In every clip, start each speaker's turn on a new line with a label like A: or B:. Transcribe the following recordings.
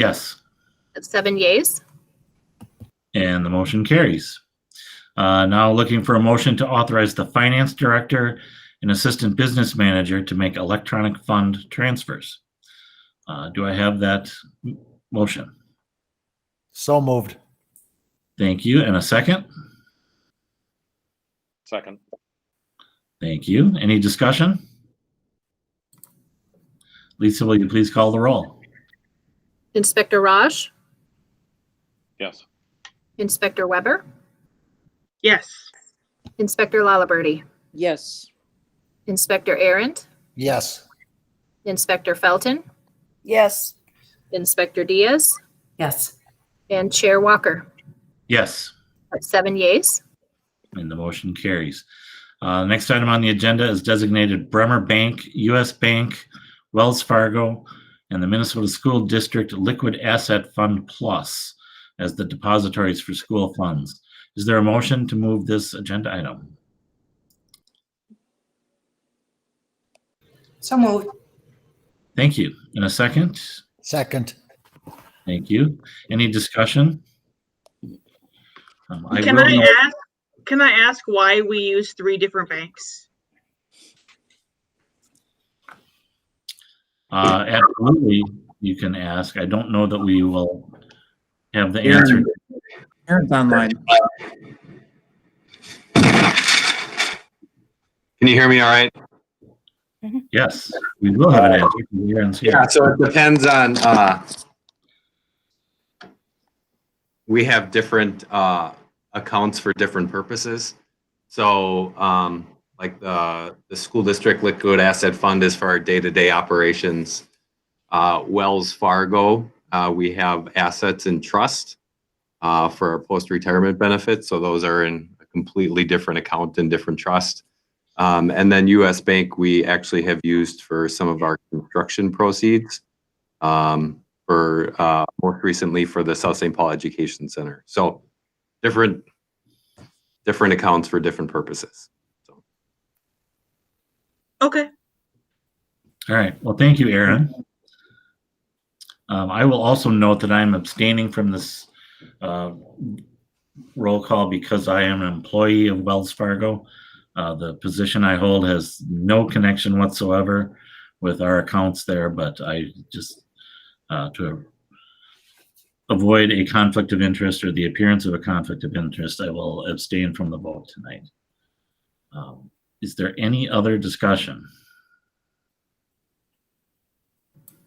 A: Yes,
B: That's seven yeas.
A: and the motion carries. Uh, Now looking for a motion to authorize the finance director and assistant business manager to make electronic fund transfers. Uh, Do I have that m- motion?
C: So moved.
A: Thank you. And a second?
D: Second.
A: Thank you. Any discussion? Lisa, will you please call the roll?
B: Inspector Raj,
D: Yes.
B: Inspector Weber,
E: Yes.
B: Inspector Lalaberty,
F: Yes.
B: Inspector Errant,
C: Yes.
B: Inspector Felton,
F: Yes.
B: Inspector Diaz,
E: Yes.
B: and Chair Walker.
A: Yes,
B: That's seven yeas.
A: and the motion carries. Uh, Next item on the agenda is designated Bremer Bank, US Bank, Wells Fargo, and the Minnesota School District Liquid Asset Fund Plus as the depositories for school funds. Is there a motion to move this agenda item?
E: So moved.
A: Thank you. In a second?
C: Second.
A: Thank you. Any discussion? Um,
E: Can
A: will
E: I
A: note-
E: ask, can I ask why we use three different banks?
A: Uh, absolutely, you can ask. I don't know that we will have the answer.
G: Aaron's online.
H: Can you hear me all right?
A: Yes, we will have an answer. from Aaron's here.
H: So it depends on, uh, we have different, uh, accounts for different purposes. So, um, like the, the school district liquid asset fund is for our day-to-day operations. Uh, Wells Fargo, uh, we have assets in trust, uh, for our post-retirement benefits. So those are in a completely different account and different trust. Um, and then US Bank, we actually have used for some of our construction proceeds. Um, for, uh, most recently for the South St. Paul Education Center. So different, different accounts for different purposes.
E: Okay.
A: All right, well, thank you, Aaron. Um, I will also note that I'm abstaining from this, uh, roll call because I am an employee of Wells Fargo. Uh, the position I hold has no connection whatsoever with our accounts there, but I just, uh, to avoid a conflict of interest or the appearance of a conflict of interest, I will abstain from the vote tonight. Um, Is there any other discussion?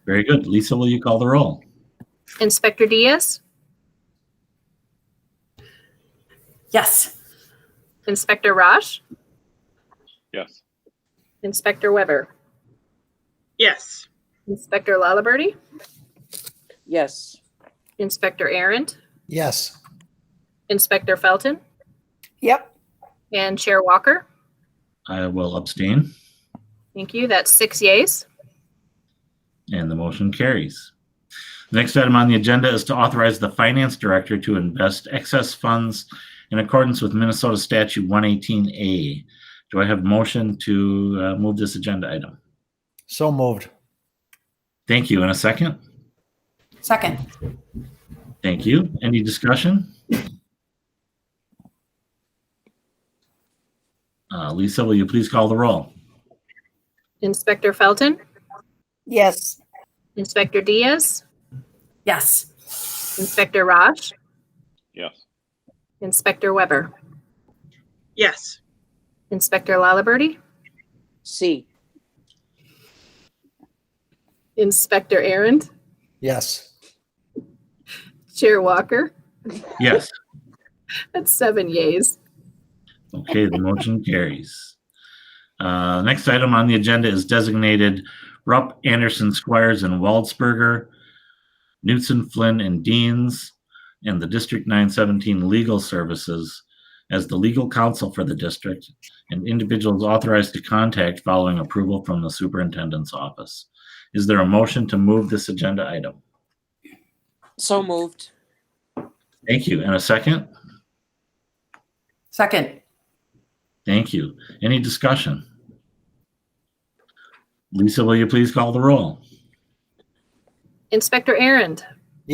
A: Very good. Lisa, will you call the roll?
B: Inspector Diaz,
I: Yes.
B: Inspector Raj,
D: Yes.
B: Inspector Weber,
E: Yes.
B: Inspector Lalaberty,
F: Yes.
B: Inspector Errant,
C: Yes.
B: Inspector Felton,
F: Yep.
B: and Chair Walker.
A: I will abstain,
B: Thank you. That's six yeas.
A: and the motion carries. The next item on the agenda is to authorize the finance director to invest excess funds in accordance with Minnesota Statute 118A. Do I have motion to uh, move this agenda item?
C: So moved.
A: Thank you. In a second?
I: Second.
A: Thank you. Any discussion? Uh, Lisa, will you please call the roll?
B: Inspector Felton,
F: Yes.
B: Inspector Diaz,
I: Yes.
B: Inspector Raj,
D: Yes.
B: Inspector Weber,
E: Yes.
B: Inspector Lalaberty,
F: C.
B: Inspector Errand,
C: Yes.
B: Chair Walker.
A: Yes.
B: That's seven yeas.
A: Okay, the motion carries. Uh, Next item on the agenda is designated Rupp, Anderson, Squires, and Waldsberger, Newton, Flynn, and Deans, and the District 917 Legal Services as the legal counsel for the district and individuals authorized to contact following approval from the superintendent's office. Is there a motion to move this agenda item?
F: So moved.
A: Thank you. And a second?
I: Second.
A: Thank you. Any discussion? Lisa, will you please call the roll?
B: Inspector Errand,